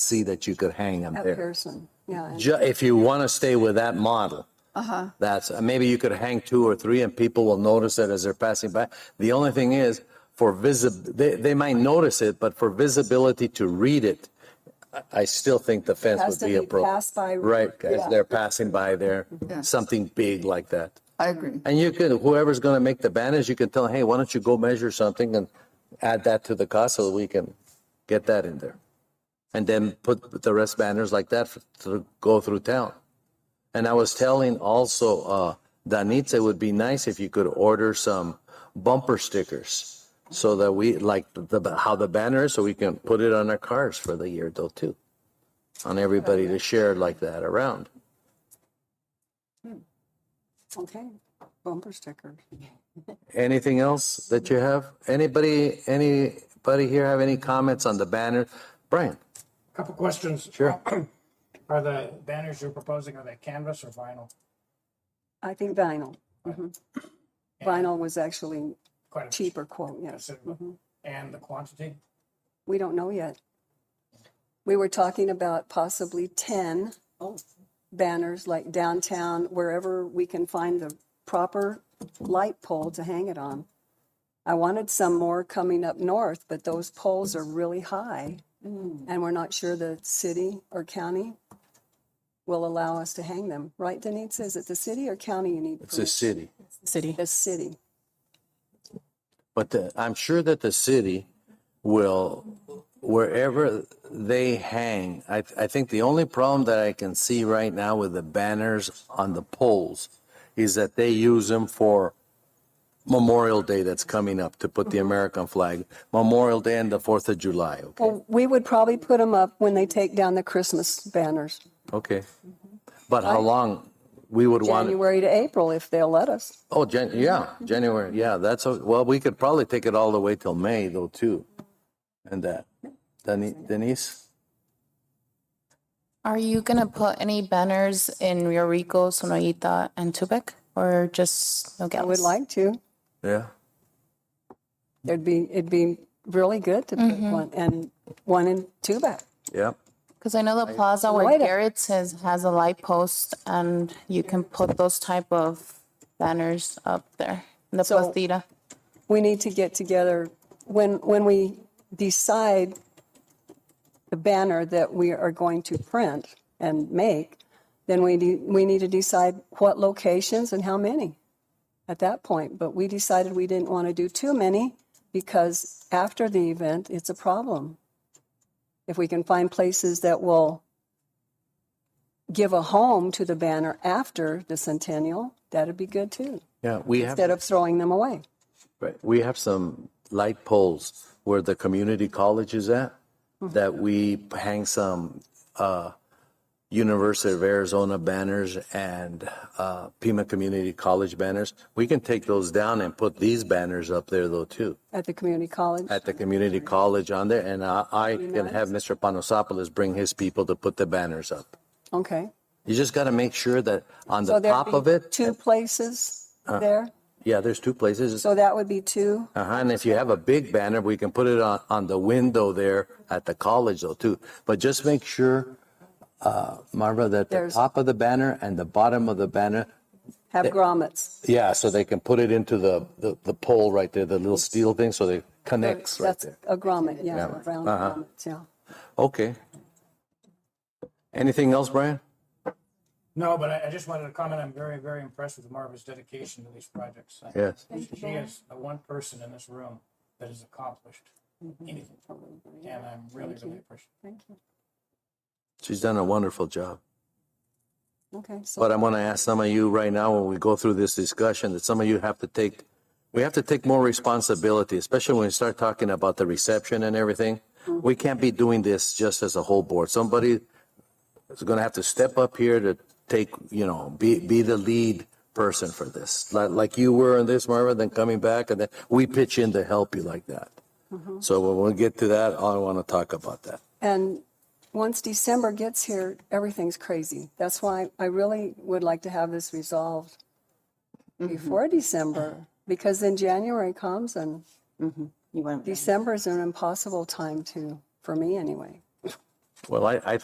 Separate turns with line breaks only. see that you could hang them
at
there.
Pearson, yeah. and-
Ju- If you want to stay with that model. Uh-huh. That's, maybe you could hang two or three and people will notice it as they're passing by. The only thing is for visib, they, they might notice it, but for visibility to read it, I- I still think the fence
Has
would
to
be
be
appropriate.
passed by-
Right, guys,
Yeah.
they're passing by there,
Yeah.
something big like that.
I agree.
And you could, whoever's going to make the banners, you can tell, hey, why don't you go measure something and add that to the cost so that we can get that in there? And then put the rest banners like that f- to go through town. And I was telling also, uh, Danitza, it would be nice if you could order some bumper stickers so that we, like the, how the banner is, so we can put it on our cars for the year though too. On everybody to share like that around.
Okay, bumper stickers.
Anything else that you have? Anybody, anybody here have any comments on the banner? Brian?
Couple questions.
Sure.
Are the banners you're proposing, are they canvas or vinyl?
I think vinyl. Mhm. Vinyl was actually
Quite a
cheaper quote, yes.
considerable. And the quantity?
We don't know yet. We were talking about possibly 10 banners, like downtown, wherever we can find the proper light pole to hang it on. I wanted some more coming up north, but those poles are really high. And we're not sure the city or county will allow us to hang them. Right, Denise? Is it the city or county you need?
It's a
permission?
city,
city.
The city.
but the- I'm sure that the city will, wherever they hang, I, I think the only problem that I can see right now with the banners on the poles is that they use them for Memorial Day that's coming up to put the American flag, Memorial Day and the Fourth of July, okay?
Well, we would probably put them up when they take down the Christmas banners,
Okay. But how long we would want? it-
Mm-hmm. January to April, if they'll let us.
Oh, Jan, yeah, January, yeah, that's, a- well, we could probably take it all the way till May though, too. And that, Deni- Denise?
Are you gonna put any banners in Rio Rico, Sonoyita, and Tubac, or just
I
Nogales?
would like to.
Yeah.
It'd be, it'd be really good to put one, and one in Tubac.
Yeah.
Because I know the plaza where
Wait a-
Garrett's is has a light post, and you can put those type of banners up there. in The
So-
plazita.
We need to get together, when, when we decide the banner that we are going to print and make, then we, de- we need to decide what locations and how many at that point. But we decided we didn't want to do too many because after the event, it's a problem. If we can find places that will give a home to the banner after the centennial, that'd be good too,
Yeah, we
instead
have,
of throwing them away.
right, we have some light poles where the community college is at
Mm-hmm.
that we hang some, uh, University of Arizona banners and, uh, Pima Community College banners. We can take those down and put these banners up there though, too.
At the community college?
at the community college on there, and I, I can have Mr. Panosopoulos bring his people to put the banners up.
Okay.
You just got to make sure that on
So
the
there'd
top
be
of it, Uh,
Two places there.
yeah, there's two places.
So that would be two.
Uh-huh, and if you have a big banner, we can put it on, on the window there at the college though too. But just make sure, uh, Marva, that the
There's-
top of the banner and the bottom of the banner,
Have grommets.
yeah, so they can put it into the, the, the pole right there, the little steel thing, so they connects right
That's
there. Uh-huh.
a grommet, yeah, round grommets, yeah.
Okay. Anything else, Brian?
No, but I, I just wanted to comment, I'm very, very impressed with Marva's dedication to these projects.
Yes.
She is the one person in this room that has accomplished anything, and I'm really, really appreciative.
Mm-hmm. Thank you.
She's done a wonderful job.
Okay, so
But I'm going to ask some of you right now, when we go through this discussion, that some of you have to take, we have to take more responsibility, especially when we start talking about the reception and everything. We can't be doing this just as a whole board. Somebody is going to have to step up here to take, you know, be, be the lead person for this. Like, like you were in this, Marvin, then coming back and then we pitch in to help you like that. So when we get to that, I want to talk about that.
And once December gets here, everything's crazy. That's why I really would like to have this resolved
Mm-hmm.
before December, because then January comes and
Mm-hmm.
You went.
December is an impossible time to, for me anyway.
Well, I, I